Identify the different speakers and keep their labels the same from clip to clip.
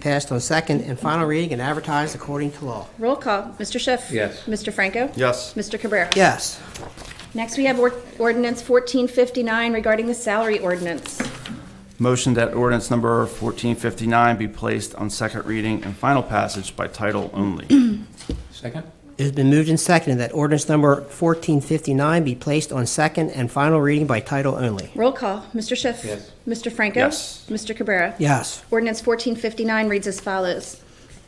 Speaker 1: passed on second and final reading and advertised according to law.
Speaker 2: Roll call, Mr. Schiff.
Speaker 3: Yes.
Speaker 2: Mr. Franco.
Speaker 4: Yes.
Speaker 2: Mr. Cabrera.
Speaker 1: Yes.
Speaker 2: Next, we have or- ordinance 1459 regarding the salary ordinance.
Speaker 4: Motion that ordinance number 1459 be placed on second reading and final passage by title only.
Speaker 3: Second?
Speaker 1: It's been moved and seconded that ordinance number 1459 be placed on second and final reading by title only.
Speaker 2: Roll call, Mr. Schiff.
Speaker 3: Yes.
Speaker 2: Mr. Franco.
Speaker 4: Yes.
Speaker 2: Mr. Cabrera.
Speaker 1: Yes.
Speaker 2: Ordinance 1459 reads as follows.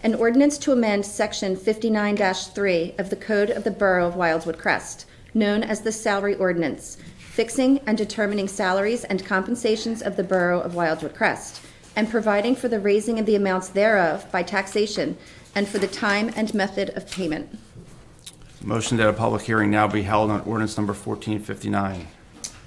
Speaker 2: An ordinance to amend Section 59-3 of the Code of the Borough of Wildwood Crest, known as the Salary Ordinance, fixing and determining salaries and compensations of the Borough of Wildwood Crest, and providing for the raising of the amounts thereof by taxation and for the time and method of payment.
Speaker 4: Motion that a public hearing now be held on ordinance number 1459.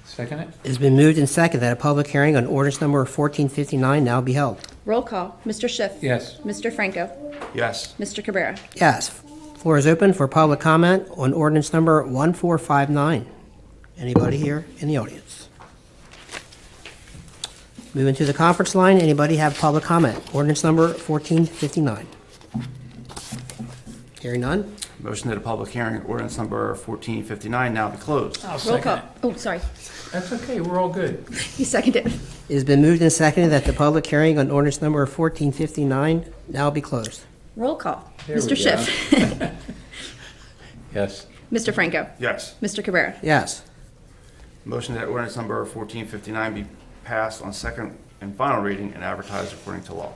Speaker 3: Second it?
Speaker 1: It's been moved and seconded that a public hearing on ordinance number 1459 now be held.
Speaker 2: Roll call, Mr. Schiff.
Speaker 3: Yes.
Speaker 2: Mr. Franco.
Speaker 4: Yes.
Speaker 2: Mr. Cabrera.
Speaker 1: Yes. Floor is open for public comment on ordinance number 1459. Anybody here in the audience? Moving to the conference line, anybody have public comment? Ordinance number 1459. Hearing none?
Speaker 4: Motion that a public hearing on ordinance number 1459 now be closed.
Speaker 3: I'll
Speaker 2: Roll
Speaker 3: second
Speaker 2: call.
Speaker 3: it.
Speaker 2: Oh, sorry.
Speaker 3: That's okay, we're all good.
Speaker 2: You seconded.
Speaker 1: It has been moved and seconded that the public hearing on ordinance number 1459 now be closed.
Speaker 2: Roll call.
Speaker 3: There we
Speaker 2: Mr. Schiff.
Speaker 3: Yes.
Speaker 2: Mr. Franco.
Speaker 4: Yes.
Speaker 2: Mr. Cabrera.
Speaker 1: Yes.
Speaker 4: Motion that ordinance number 1459 be passed on second and final reading and advertised according to law.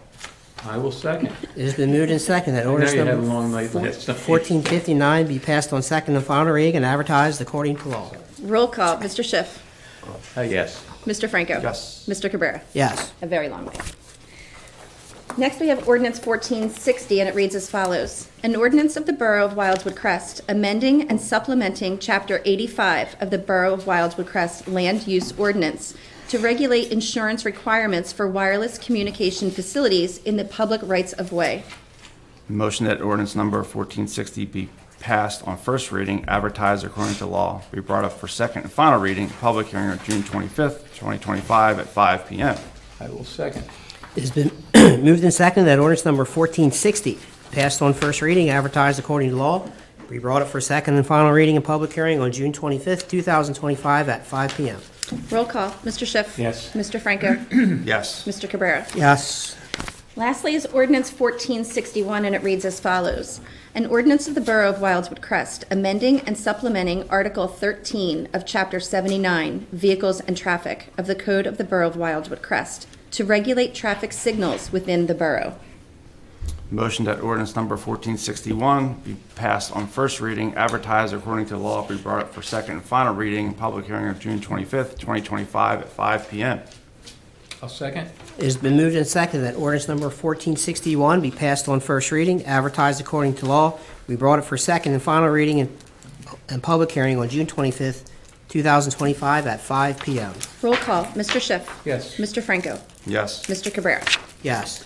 Speaker 3: I will second.
Speaker 1: It has been moved and seconded that ordinance
Speaker 3: you had
Speaker 1: number
Speaker 3: a long night last night.
Speaker 1: 1459 be passed on second and final reading and advertised according to law.
Speaker 2: Roll call, Mr. Schiff.
Speaker 3: Uh, Yes.
Speaker 2: Mr. Franco.
Speaker 4: Yes.
Speaker 2: Mr. Cabrera.
Speaker 1: Yes.
Speaker 2: A very long way. Next, we have ordinance 1460, and it reads as follows. An ordinance of the Borough of Wildwood Crest amending and supplementing Chapter 85 of the Borough of Wildwood Crest Land Use Ordinance to regulate insurance requirements for wireless communication facilities in the public rights of way.
Speaker 4: Motion that ordinance number 1460 be passed on first reading, advertised according to law, be brought up for second and final reading, public hearing on June 25th, 2025 at 5 PM.
Speaker 3: I will second.
Speaker 1: It has been moved and seconded that ordinance number 1460 passed on first reading, advertised according to law, be brought up for second and final reading and public hearing on June 25th, 2025 at 5 PM.
Speaker 2: Roll call, Mr. Schiff.
Speaker 3: Yes.
Speaker 2: Mr. Franco.
Speaker 4: Yes.
Speaker 2: Mr. Cabrera.
Speaker 1: Yes.
Speaker 2: Lastly is ordinance 1461, and it reads as follows. An ordinance of the Borough of Wildwood Crest amending and supplementing Article 13 of Chapter 79, Vehicles and Traffic of the Code of the Borough of Wildwood Crest to regulate traffic signals within the borough.
Speaker 4: Motion that ordinance number 1461 be passed on first reading, advertised according to law, be brought up for second and final reading, public hearing on June 25th, 2025 at 5 PM.
Speaker 3: I'll second.
Speaker 1: It has been moved and seconded that ordinance number 1461 be passed on first reading, advertised according to law. We brought it for second and final reading and, and public hearing on June 25th, 2025 at 5 PM.
Speaker 2: Roll call, Mr. Schiff.
Speaker 3: Yes.
Speaker 2: Mr. Franco.
Speaker 4: Yes.
Speaker 2: Mr. Cabrera.
Speaker 1: Yes.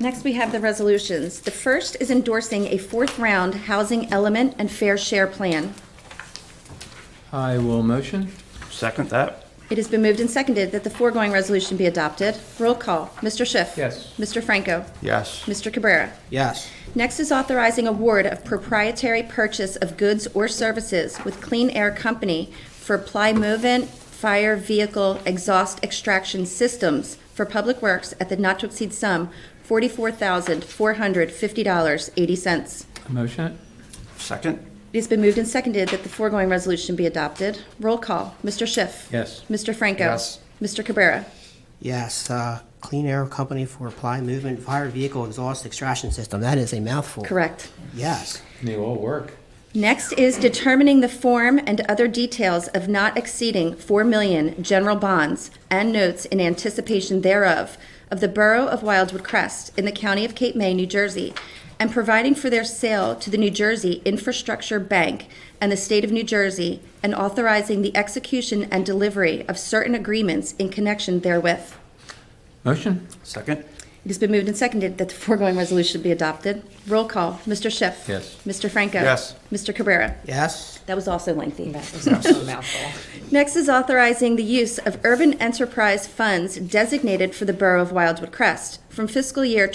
Speaker 2: Next, we have the resolutions. The first is endorsing a fourth-round housing element and fair share plan.
Speaker 3: I will motion.
Speaker 4: Second that?
Speaker 2: It has been moved and seconded that the foregoing resolution be adopted. Roll call, Mr. Schiff.
Speaker 3: Yes.
Speaker 2: Mr. Franco.
Speaker 4: Yes.
Speaker 2: Mr. Cabrera.
Speaker 1: Yes.
Speaker 2: Next is authorizing award of proprietary purchase of goods or services with Clean Air Company for Plymovent Fire Vehicle Exhaust Extraction Systems for Public Works at the not to exceed sum $44,450.80.
Speaker 3: Motion it.
Speaker 4: Second?
Speaker 2: It has been moved and seconded that the foregoing resolution be adopted. Roll call, Mr. Schiff.
Speaker 3: Yes.
Speaker 2: Mr. Franco.
Speaker 4: Yes.
Speaker 2: Mr. Cabrera.
Speaker 1: Yes, uh, Clean Air Company for Apply Movement Fire Vehicle Exhaust Extraction System. That is a mouthful.
Speaker 2: Correct.
Speaker 1: Yes.
Speaker 3: They all work.
Speaker 2: Next is determining the form and other details of not exceeding 4 million general bonds and notes in anticipation thereof of the Borough of Wildwood Crest in the County of Cape May, New Jersey, and providing for their sale to the New Jersey Infrastructure Bank and the State of New Jersey, and authorizing the execution and delivery of certain agreements in connection therewith.
Speaker 3: Motion?
Speaker 4: Second?
Speaker 2: It has been moved and seconded that the foregoing resolution be adopted. Roll call, Mr. Schiff.
Speaker 3: Yes.
Speaker 2: Mr. Franco.
Speaker 4: Yes.
Speaker 2: Mr. Cabrera.
Speaker 1: Yes.
Speaker 2: That was also lengthy.
Speaker 5: mouthful.
Speaker 2: Next is authorizing the use of urban enterprise funds designated for the Borough of Wildwood Crest from fiscal year